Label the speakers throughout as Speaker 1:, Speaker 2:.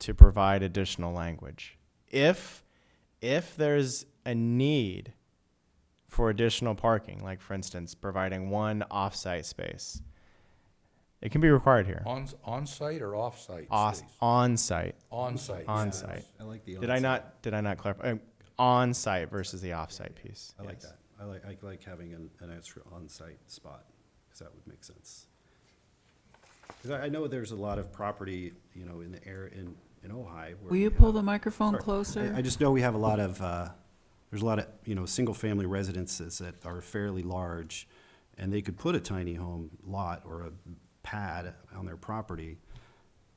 Speaker 1: to provide additional language. If if there's a need for additional parking, like for instance, providing one off-site space, it can be required here.
Speaker 2: On, on-site or off-site?
Speaker 1: Os-
Speaker 2: space?
Speaker 1: On-site,
Speaker 2: On-site.
Speaker 1: on-site.
Speaker 3: I like the.
Speaker 1: Did I
Speaker 3: onsite.
Speaker 1: not, did I not clarify? Um, On-site versus the off-site piece.
Speaker 3: I like
Speaker 1: Yes.
Speaker 3: that. I like, I like having an, an extra on-site spot, because that would make sense. Because I, I know there's a lot of property, you know, in the air, in, in Ojai. where
Speaker 4: Will
Speaker 3: we
Speaker 4: you
Speaker 3: have-
Speaker 4: pull the microphone
Speaker 3: Sorry. I- I
Speaker 4: closer?
Speaker 3: just know we have a lot of, uh, there's a lot of, you know, single-family residences that are fairly large, and they could put a tiny home lot or a pad on their property,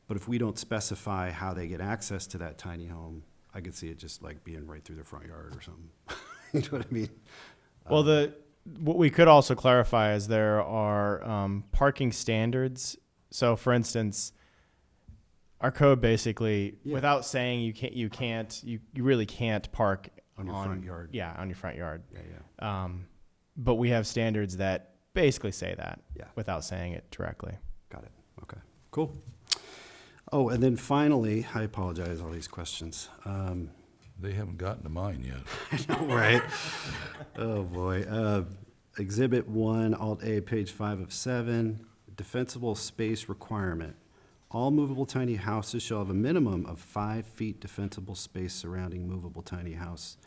Speaker 3: but if we don't specify how they get access to that tiny home, I could see it just like being right through their front yard or something. You know what I mean?
Speaker 1: Well, the what we could also clarify is there are um, parking standards. So, for instance, our code basically,
Speaker 3: Yeah.
Speaker 1: without saying you can't, you can't, you, you really can't park
Speaker 3: On your front yard.
Speaker 1: Yeah, on your front yard.
Speaker 3: Yeah, yeah.
Speaker 1: Um, but we have standards that basically say that
Speaker 3: Yeah.
Speaker 1: without saying it directly.
Speaker 3: Got it. Okay, cool. Oh, and then finally, I apologize, all these questions. Um,
Speaker 2: They haven't gotten to mine yet.
Speaker 3: All right. Oh, boy. Uh, Exhibit one, Alt A, page five of seven, defensible space requirement. All movable tiny houses shall have a minimum of five feet defensible space surrounding movable tiny house.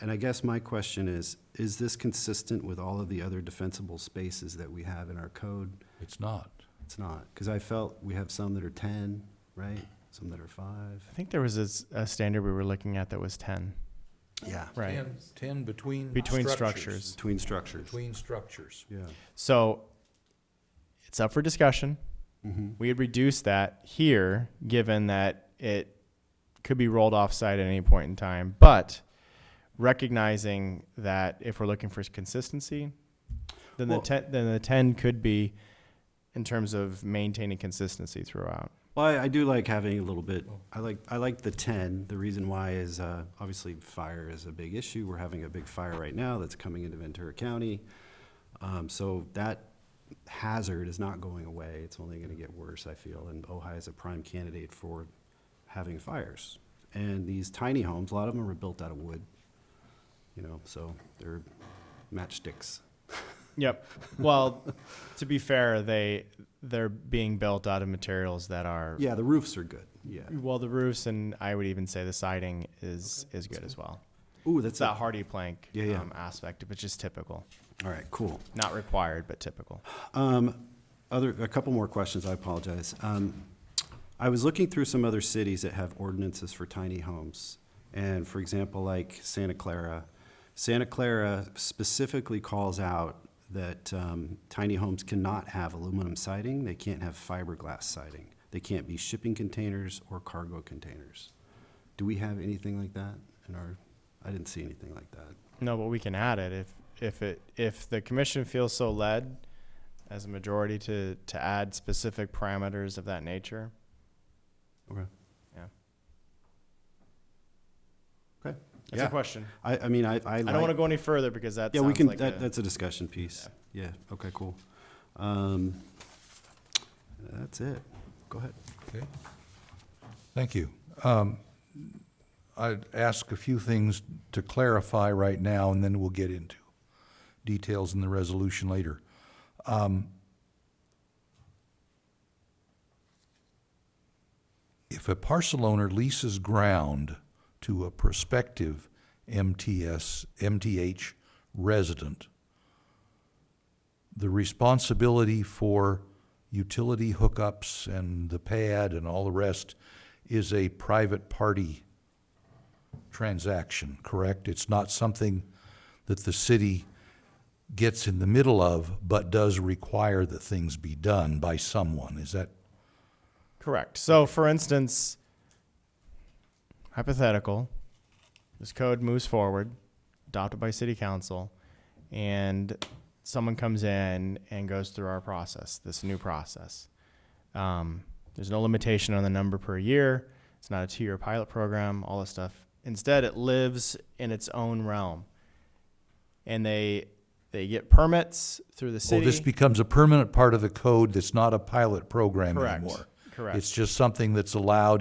Speaker 3: And I guess my question is, is this consistent with all of the other defensible spaces that we have in our code?
Speaker 2: It's not.
Speaker 3: It's not, because I felt we have some that are ten, right? Some that are five.
Speaker 1: I think there was a, s- a standard we were looking at that was 10,
Speaker 3: Yeah.
Speaker 1: right?
Speaker 2: Ten- Ten between
Speaker 1: Between structures.
Speaker 3: Between structures.
Speaker 2: Between structures.
Speaker 3: Yeah.
Speaker 1: So it's up for discussion.
Speaker 3: Mm-hmm.
Speaker 1: We had reduced that here, given that it could be rolled off site at any point in time, but recognizing that if we're looking for consistency, then
Speaker 3: Well-
Speaker 1: the ten, then the ten could be in terms of maintaining consistency throughout.
Speaker 3: Well, I, I do like having a little bit, I like, I like the ten. The reason why is, uh, obviously fire is a big issue. We're having a big fire right now that's coming into Ventura County. Um, so that hazard is not going away. It's only gonna get worse, I feel, and Ojai is a prime candidate for having fires. And these tiny homes, a lot of them are built out of wood, you know, so they're matchsticks.
Speaker 1: Yep. Well, to be fair, they they're being built out of materials that are
Speaker 3: Yeah, the roofs are good, yeah.
Speaker 1: well the roofs and I would even say the siding is is good as well.
Speaker 3: Ooh,
Speaker 1: It's
Speaker 3: that's,
Speaker 1: that
Speaker 3: a-
Speaker 1: hardy plank
Speaker 3: Yeah, yeah.
Speaker 1: Um, aspect, which is typical.
Speaker 3: all right, cool.
Speaker 1: Not required, but typical.
Speaker 3: Um, Other, a couple more questions, I apologize. Um, I was looking through some other cities that have ordinances for tiny homes. And for example, like Santa Clara. Santa Clara specifically calls out that um, tiny homes cannot have aluminum siding, they can't have fiberglass siding, they can't be shipping containers or cargo containers. Do we have anything like that in our, I didn't see anything like that.
Speaker 1: No, but we can add it if if it if the commission feels so led as a majority to to add specific parameters of that nature.
Speaker 3: Okay.
Speaker 1: Yeah.
Speaker 3: Okay.
Speaker 1: It's
Speaker 3: Yeah.
Speaker 1: a question.
Speaker 3: I, I mean, I, I
Speaker 1: I don't want
Speaker 3: like-
Speaker 1: to go any further because that's
Speaker 3: Yeah, we can,
Speaker 1: like
Speaker 3: that,
Speaker 1: a-
Speaker 3: that's a discussion piece. Yeah, okay, cool. Um, that's it. Go ahead.
Speaker 2: Okay. Thank you. Um, I'd ask a few things to clarify right now, and then we'll get into details in the resolution later. Um, If a parcel owner leases ground to a prospective MTS, MTH resident, the responsibility for utility hookups and the pad and all the rest is a private party transaction, correct? It's not something that the city gets in the middle of, but does require that things be done by someone. Is that,
Speaker 1: Correct. So, for instance, hypothetical, this code moves forward, adopted by city council, and someone comes in and goes through our process, this new process. Um, there's no limitation on the number per year. It's not a two year pilot program, all this stuff. Instead, it lives in its own realm. And they they get permits through the
Speaker 2: well,
Speaker 1: city.
Speaker 2: this becomes a permanent part of the code that's not a pilot program
Speaker 1: Correct.
Speaker 2: anymore.
Speaker 1: Correct.
Speaker 2: It's just something that's allowed